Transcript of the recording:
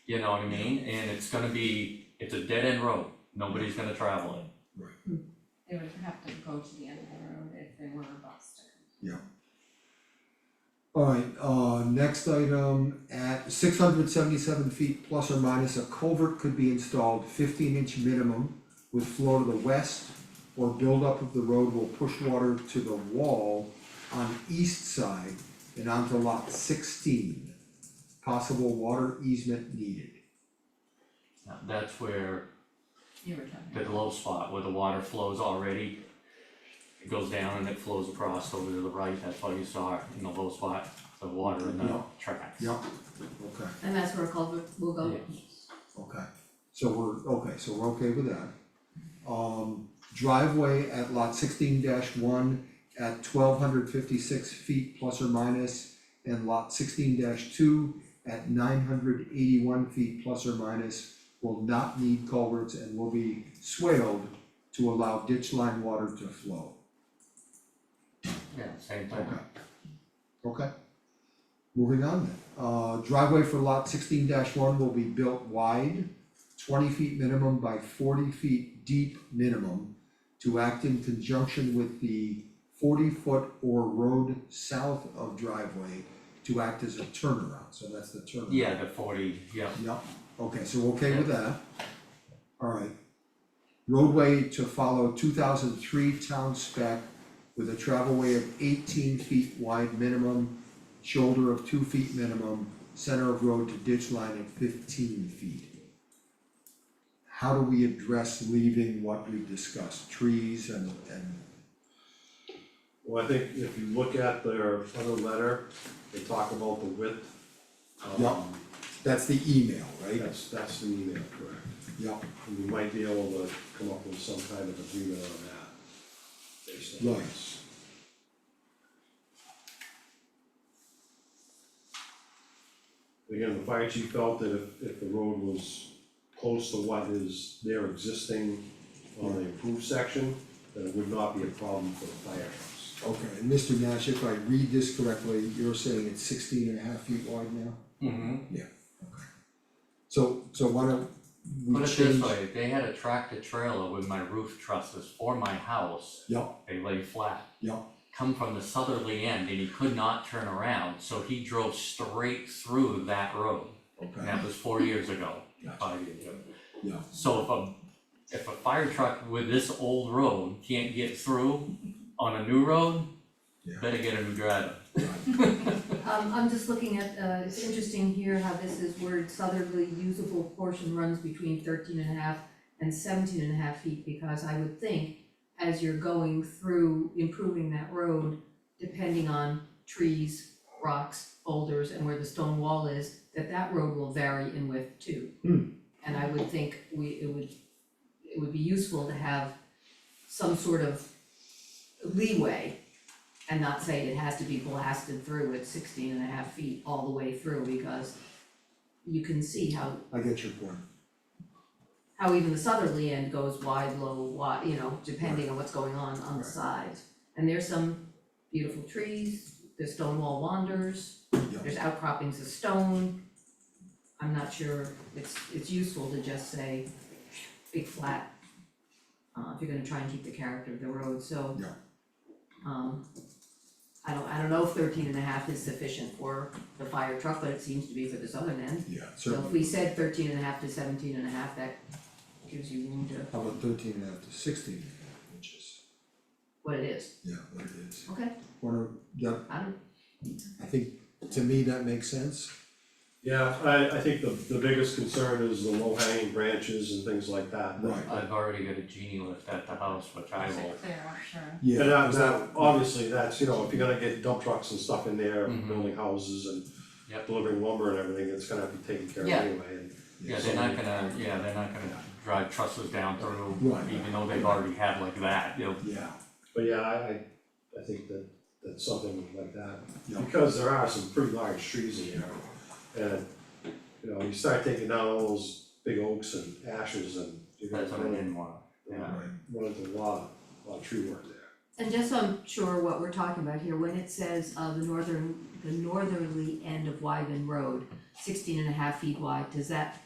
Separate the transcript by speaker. Speaker 1: You know what I mean? And it's gonna be, it's a dead end road, nobody's gonna travel it.
Speaker 2: They would have to go to the end of the road if they were a bus to
Speaker 3: Alright, uh, next item, at six hundred seventy-seven feet plus or minus, a culvert could be installed fifteen inch minimum with flow to the west, or buildup of the road will push water to the wall on east side and onto lot sixteen. Possible water easement needed.
Speaker 1: Now, That's where
Speaker 2: you were talking
Speaker 1: the
Speaker 2: about.
Speaker 1: low spot where the water flows already. It goes down and it flows across over to the right, that's why you saw it in the low spot, the water in the
Speaker 3: Yeah.
Speaker 1: tracks.
Speaker 3: Yep, okay,
Speaker 4: And that's where a culvert will go.
Speaker 3: okay, so we're, okay, so we're okay with that. Um, driveway at lot sixteen one at twelve hundred fifty-six feet plus or minus, and lot sixteen two at nine hundred eighty-one feet plus or minus will not need culverts and will be swaled to allow ditch line water to flow.
Speaker 1: Yeah, same thing.
Speaker 3: Okay. Okay. Moving on then, uh, driveway for lot sixteen one will be built wide, twenty feet minimum by forty feet deep minimum to act in conjunction with the forty foot or road south of driveway to act as a turnaround, so that's the turnaround.
Speaker 1: Yeah, the forty, yeah,
Speaker 3: Yep, okay, so we're okay with that. Alright. Roadway to follow two thousand three town spec with a travelway of eighteen feet wide minimum, shoulder of two feet minimum, center of road to ditch line at fifteen feet. How do we address leaving what we discussed, trees and and,
Speaker 5: Well, I think if you look at their other letter, they talk about the width. um,
Speaker 3: Yeah. that's the email, right?
Speaker 5: That's, that's the email, correct.
Speaker 3: Yep,
Speaker 5: And we might be able to come up with some kind of agreement on that. Based on
Speaker 3: Right.
Speaker 5: this. Again, the fire chief felt that if, if the road was close to what is their existing on the approved section, that it would not be a problem for the firehouse.
Speaker 3: okay, and Mr. Nash, if I read this correctly, you're saying it's sixteen and a half feet wide now?
Speaker 1: mm-hmm.
Speaker 3: So, so why don't we
Speaker 1: Put
Speaker 3: change?
Speaker 1: it this way, if they had a tractor trailer with my roof trusses for my house,
Speaker 3: Yeah,
Speaker 1: they lay flat.
Speaker 3: yeah,
Speaker 1: Come from the southerly end and he could not turn around, so he drove straight through that road. And
Speaker 3: okay,
Speaker 1: that was four years ago,
Speaker 3: Gotcha.
Speaker 1: five years ago.
Speaker 3: yeah,
Speaker 1: So if a, if a fire truck with this old road can't get through on a new road,
Speaker 3: Yeah.
Speaker 1: better get a new driver.
Speaker 4: Um, I'm just looking at, uh, it's interesting here how this is word southerly usable portion runs between 13 and a half and 17 and a half feet, because I would think as you're going through improving that road, depending on trees, rocks, boulders, and where the stone wall is, that that road will vary in width too.
Speaker 3: Hmm.
Speaker 4: And I would think we, it would, it would be useful to have some sort of leeway and not say it has to be blasted through at 16 and a half feet all the way through, because you can see how
Speaker 3: I get your point,
Speaker 4: how even the southerly end goes wide, low, wide, you know, depending on what's going on on the
Speaker 3: Right.
Speaker 4: sides. And there's some beautiful trees, there's stone wall wanders,
Speaker 3: yeah,
Speaker 4: there's outcroppings of stone. I'm not sure, it's, it's useful to just say, big flat, uh, if you're gonna try and keep the character of the road, so.
Speaker 3: Yeah.
Speaker 4: Um, I don't, I don't know if thirteen and a half is sufficient for the fire truck, but it seems to be for the southern end.
Speaker 3: yeah,
Speaker 4: So if
Speaker 3: certainly,
Speaker 4: we said thirteen and a half to seventeen and a half, that gives you room to
Speaker 3: how about thirteen and a half to sixteen and a half inches?
Speaker 4: what it is,
Speaker 3: Yeah, what it is,
Speaker 4: okay,
Speaker 3: wanna, yeah,
Speaker 4: I don't,
Speaker 3: I think, to me, that makes sense,
Speaker 5: Yeah, I, I think the, the biggest concern is the low hanging branches and things like that.
Speaker 3: right,
Speaker 1: I've already got a genie lift at the house, which I
Speaker 2: Is
Speaker 1: will,
Speaker 2: it clear, I'm sure.
Speaker 3: yeah,
Speaker 5: And that,
Speaker 3: 'cause
Speaker 5: that,
Speaker 3: that-
Speaker 5: obviously, that's, you know, if you're gonna get dump trucks and stuff in there,
Speaker 1: Mhm.
Speaker 5: building houses and
Speaker 1: Yep.
Speaker 5: delivering lumber and everything, it's gonna be taken care of
Speaker 4: Yeah.
Speaker 5: anyway, and
Speaker 1: yeah, they're not gonna, yeah, they're not gonna drive trusses down through,
Speaker 3: Right.
Speaker 1: even though they've already had like that, you know.
Speaker 3: Yeah,
Speaker 5: But yeah, I, I, I think that, that something like that,
Speaker 3: Yeah.
Speaker 5: because there are some pretty large trees in there. And, you know, you start taking down all those big oaks and ashes and you're gonna
Speaker 1: That's what I
Speaker 5: run
Speaker 1: didn't want, yeah.
Speaker 3: right,
Speaker 5: run into a lot, a lot of tree work there.
Speaker 4: and just so I'm sure what we're talking about here, when it says uh the northern, the northerly end of Wyven Road, sixteen and a half feet wide, does that